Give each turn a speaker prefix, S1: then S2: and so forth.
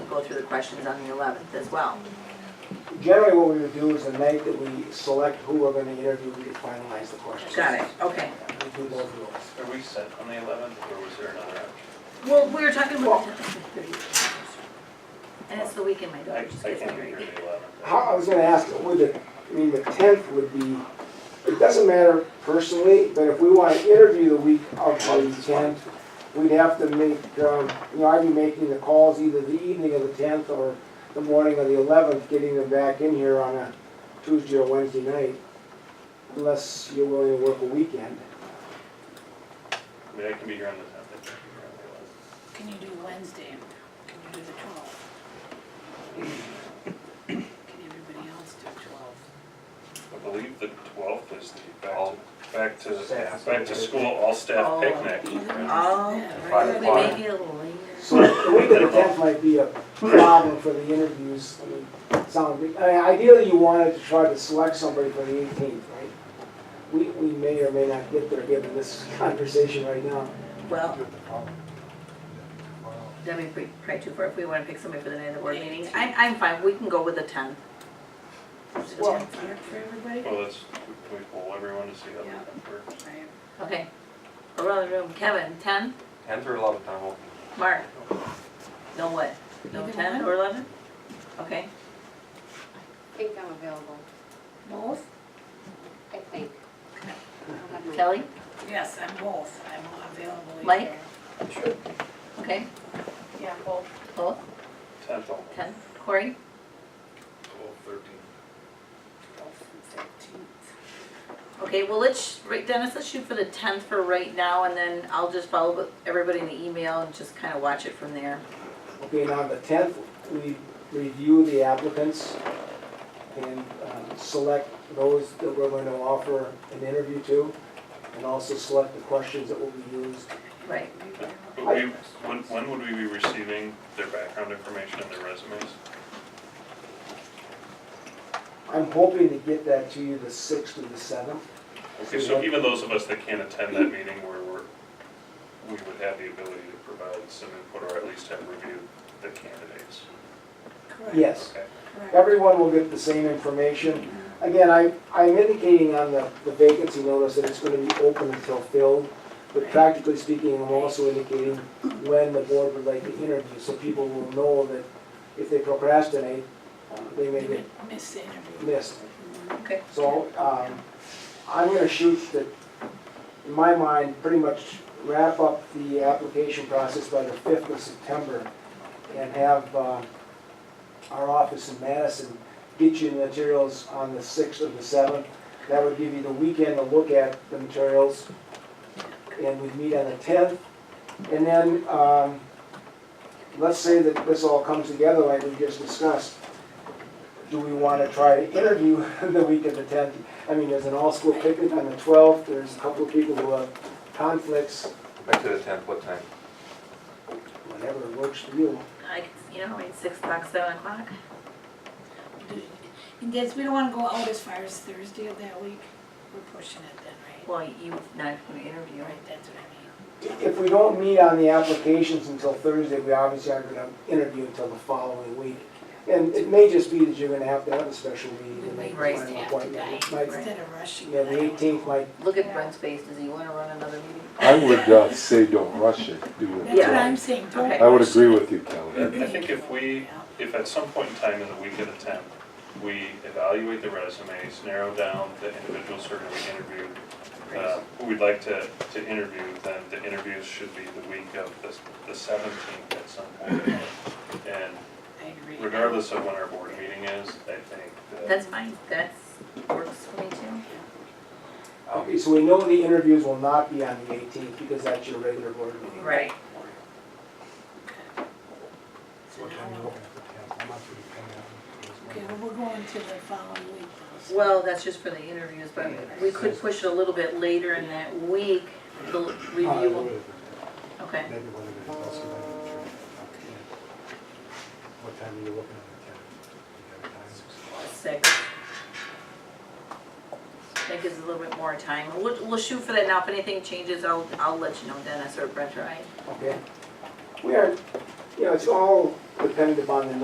S1: go through the questions on the 11th as well.
S2: Generally, what we would do is the night that we select who we're gonna interview, we could finalize the questions.
S1: Got it, okay.
S2: We do both of those.
S3: Are we set on the 11th, or was there another option?
S1: Well, we were talking about. And it's the weekend, my
S3: I
S1: daughter just
S3: I
S1: gets
S3: can't be
S1: married.
S3: here the 11th.
S2: How, I was gonna ask, would the, I mean, the tenth would be, it doesn't matter personally, but if we wanna interview the week of the tenth, we'd have to make, um, you know, I'd be making the calls either the evening of the tenth or the morning of the eleventh, getting them back in here on a Tuesday or Wednesday night, unless you're willing to work a weekend.
S3: I mean, I can be here on the 10th, I can be here on the 11th.
S4: Can you do Wednesday? Can you do the twelfth? Can everybody else do twelve?
S3: I believe the twelfth is the back
S5: All-
S3: to, back to,
S5: Staff.
S3: back to school, all
S1: Oh.
S3: staff picnic.
S1: Oh,
S5: Five
S1: right, we
S5: o'clock.
S1: may be a little later.
S2: So the week of the tenth might be a problem for the interviews, I mean, sound, I mean, ideally you wanted to try to select somebody for the eighteenth, right? We, we may or may not get there given this conversation right now.
S1: Well, that'd be probably too far if we want to pick somebody for the night of the board meeting. I'm, I'm fine, we can go with the 10th.
S2: Well-
S4: Work for everybody?
S3: Well, that's, we we poll everyone to see how we compare.
S4: Right.
S1: Okay. Around the room, Kevin, 10?
S5: Ten through eleven, I'm open.
S1: Mark? No what? No
S4: Either
S1: 10
S4: one.
S1: or 11? Okay.
S6: I think I'm available,
S1: Both?
S6: I think. I'll have my-
S1: Kelly?
S4: Yes, I'm both. I'm available. either.
S1: Mike? Okay,
S4: Yeah, both.
S1: both,
S3: Tenth all.
S1: 10. Corey?
S3: Twelve, thirteen.
S4: Twelfth and fifteenth.
S1: Okay, well, let's, right, Dennis, let's shoot for the 10th for right now, and then I'll just follow up with everybody in the email and just kind of watch it from there.
S2: Okay, now the tenth, we review the applicants and um, select those that we're going to offer an interview to, and also select the questions that will be used.
S1: Right.
S3: But we, when, when would we be receiving their background information and their resumes?
S2: I'm hoping to get that to you the sixth or the seventh.
S3: Okay, so even those of us that can't attend that meeting, where we're, we would have the ability to provide some input, or at least have reviewed the candidates.
S4: Correct.
S2: Yes.
S3: Okay.
S4: Correct.
S2: Everyone will get the same information. Again, I, I'm indicating on the the vacancy notice that it's gonna be open until filled, but practically speaking, I'm also indicating when the board would like to interview, so people will know that if they procrastinate, uh, they may get
S4: Miss interview.
S2: missed.
S1: Okay.
S2: So, um, I'm gonna shoot that, in my mind, pretty much wrap up the application process by the fifth of September and have, uh, our office in Madison get you the materials on the sixth or the seventh. That would give you the weekend to look at the materials. And we'd meet on the tenth. And then, um, let's say that this all comes together like we just discussed do we want to try to interview the week of the tenth? I mean, there's an all-school picnic on the twelfth, there's a couple of people who have conflicts,
S5: Back to the tenth, what time?
S2: whatever works for you.
S1: I, can- you know, I mean, 6 o'clock, 7 o'clock.
S4: Do- And that's, we don't wanna go out as far as Thursday of that week. We're pushing it then,
S1: Well, you're not going to interview, right?
S4: right? Right, that's what I mean.
S2: If we don't meet on the applications until Thursday, we obviously aren't going to interview until the following week. And it may just be that you're going to have to have a special meeting and make a
S1: Right.
S2: final appointment. It might-
S4: Instead of rushing.
S2: Yeah,
S4: it, I
S2: the
S4: don't-
S2: eighteenth might,
S1: Look at Brent's face, does he want to run another meeting?
S7: I would uh, say don't rush it, do
S4: That's
S7: it.
S4: what
S1: Yeah.
S4: I'm saying, don't
S1: Okay.
S7: I would
S4: rush
S7: agree
S4: it.
S7: with you, Kelly.
S3: I think if we, if at some point in time in the week of the tenth, we evaluate the resumes, narrow down the individuals who are gonna be interviewed, uh, who we'd like to, to interview, then the interviews should be the week of the, the seventeenth at some point. And
S4: I agree.
S3: regardless of when our board meeting is, I think that
S1: That's fine, that's, works for me too.
S2: okay, so we know the interviews will not be on the eighteenth because that's your regular board meeting.
S1: Right.
S4: So now we're- Okay, well, we're going to the following week. though, so-
S1: Well, that's just for the interviews, but we could push it a little bit later in that week, the review, okay.
S8: What time are you looking at the calendar?
S1: six. That gives a little bit more time. We'll, we'll shoot for that now. If anything changes, I'll, I'll let you know, Dennis or Brent or I.
S2: Okay. We are, you know, it's all dependent upon the